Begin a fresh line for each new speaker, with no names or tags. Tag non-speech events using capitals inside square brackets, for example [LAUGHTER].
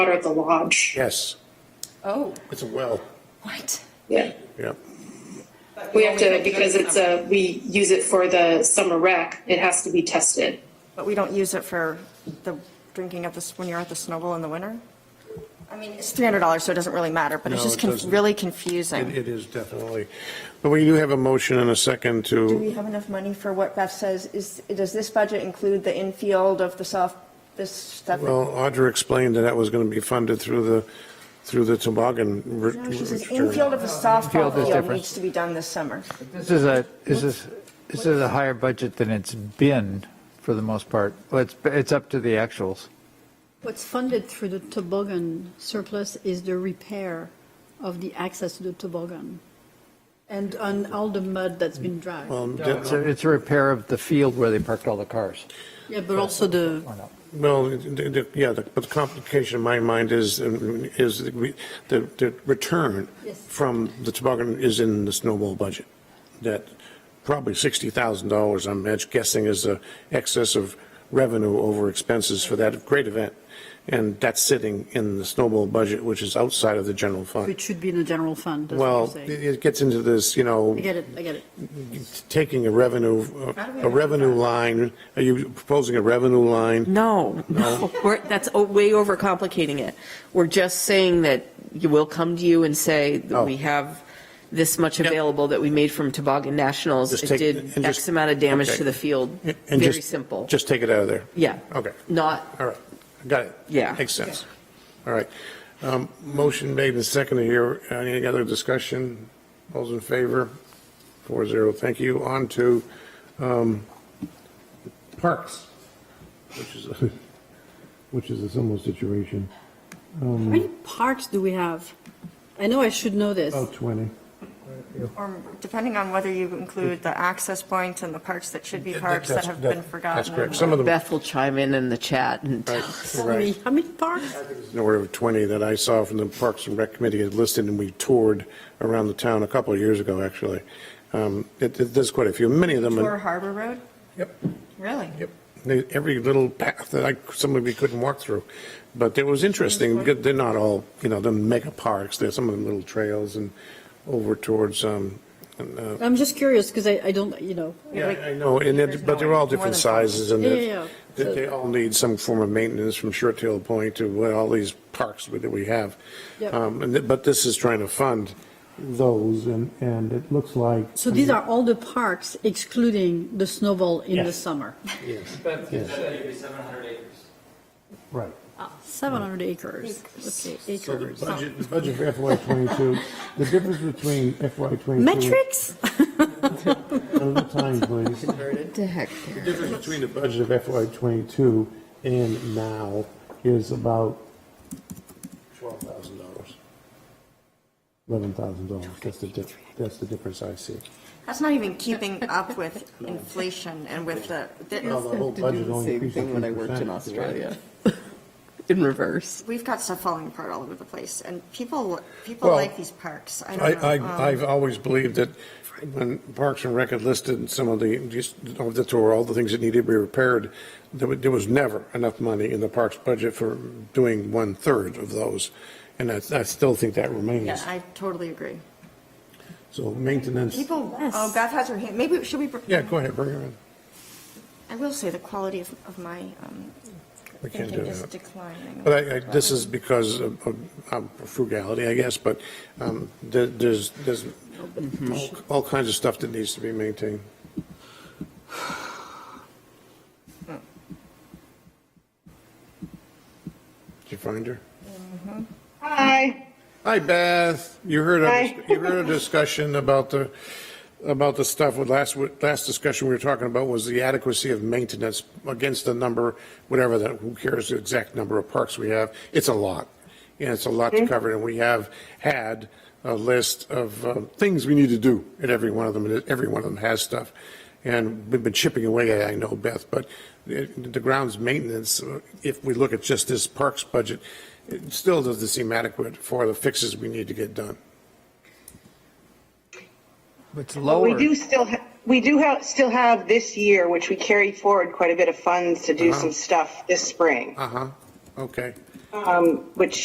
water at the lodge.
Yes,
Oh,
it's a well,
what?
Yeah.
yep.
But
We
you only
have to,
do it
because
in
it's
summer.
a, we use it for the summer rec, it has to be tested.
But we don't use it for the drinking at this, when you're at the snowball in the winter? I mean, it's $300, so it doesn't really matter, but it's
No,
just
it
con-
doesn't.
really
It
confusing.
it is definitely, but we do have a motion and a second
Do we
to,
have enough money for what Beth says? Is, does this budget include the infield of the soft, this stuff?
well, Audra explained that that was going to be funded through the, through the toboggan. re-
No, she says
return.
infield of the
Infield
softball
is
field
different.
needs to be done this summer.
This is a, this is, this is a higher budget than it's been for the most part. Well, it's, it's up to the actuals.
What's funded through the toboggan surplus is the repair of the access to the toboggan and on all the mud that's been dragged.
Well, de-
It's a, it's a repair of the field where they parked all the cars.
Yeah, but also the,
Or not.
Well, the- the- yeah, the- but the complication in my mind is, um, is that we- the, the return
Yes.
from the toboggan is in the snowball budget. That probably $60,000, I'm edge guessing, is the excess of revenue over expenses for that great event. And that's sitting in the snowball budget, which is outside of the general fund.
which should be in the general fund, that's what you're
Well, it
saying.
it gets into this, you know,
I get it, I get it.
taking a revenue, uh, a revenue line, are you proposing a revenue line?
No, no, [LAUGHS] we're, that's o- way overcomplicating it. We're just saying that you will come to you and say that
Oh.
we have this much
Yep.
available that we made from Toboggan Nationals.
Just
It
take-
did
and just-
X amount of damage
okay.
to the field.
And
Very
just-
simple.
Just take it out of there.
Yeah.
Okay.
Not,
All right. Got it.
Yeah.
Makes sense. All right. Um, Motion made and seconded here. Any other discussion? All's in favor? Four zero. Thank you. On to um, parks, which is, [LAUGHS] which is a similar situation. Mm.
How many parks do we have? I know I should know this.
About 20.
Or depending on whether you include the access points and the parks that should be parks that
That's-
have been forgotten.
That's correct. Some of them,
Beth will chime in in the chat and tell us.
Tell me, how many parks?
in order of 20 that I saw from the Parks and Rec Committee had listed, and we toured around the town a couple of years ago, actually. Um, it- it- There's quite a few, many of them.
Tour Harbor Road?
Yep.
Really?
Yep. They- Every little path that I, somebody couldn't walk through. But it was interesting, because they're not all, you know, the mega parks, there's some of them little trails and over towards, um, and, uh,
I'm just curious, because I, I don't, you know,
yeah, I know, and it, but they're all different sizes and
Yeah, yeah,
they,
yeah.
they all need some form of maintenance from Short Tail Point to what all these parks that we have.
Yep.
Um, and, th- but this is trying to fund those and, and it looks like.
so these are all the parks excluding the snowball in the
Yes.
summer.
But it's going to be 700 acres.
Right.
Ah, 700 acres, okay,
So the
acres.
budget, the budget [LAUGHS] for FY '22, the difference between FY '22.
[LAUGHS] Metrics?
Another time, please. The difference between the budget of FY '22 and now is about $12,000. $11,000. That's the diff, that's the difference I see.
That's not even keeping up with inflation and with the,
Well, the
the-
whole budget only
Same
increased by
thing when I worked in
3%,
Australia. [LAUGHS] In reverse.
we've got stuff falling apart all over the place, and people, people
Well,
like these parks. I
I,
don't know.
I,
Um,
I've always believed that when Parks and Rec had listed some of the, just of the tour, all the things that needed to be repaired, there was, there was never enough money in the parks budget for doing one-third of those. And I, I still think that
Yeah,
remains.
I totally agree.
So maintenance,
People, oh, Beth has her hand, maybe, should we?
yeah, go ahead, bring her in.
I will say the quality of, of my um,
We can't
thinking
do
is
that.
declining.
But I, I, this is because of, of um, frugality, I guess, but, um, there, there's, there's all, all kinds of stuff that needs to be maintained. Did you find her?
Hi,
Hi, Beth. You heard,
Hi.
a- you heard a discussion about the, about the stuff with last, last discussion we were talking about was the adequacy of maintenance against the number, whatever that, who cares the exact number of parks we have? It's a lot. And it's a lot to cover. And we have had a list of uh, things we need to do at every one of them, and every one of them has stuff. And we've been chipping away at, it, I know, Beth, but it- the grounds maintenance, uh, if we look at just this parks budget, it still doesn't seem adequate for the fixes we need to get done.
It's
We
lower.
do still, ha- we do have, still have this year, which we carried forward quite a bit of funds to do some stuff this spring.
Uh-huh. Okay.
um, which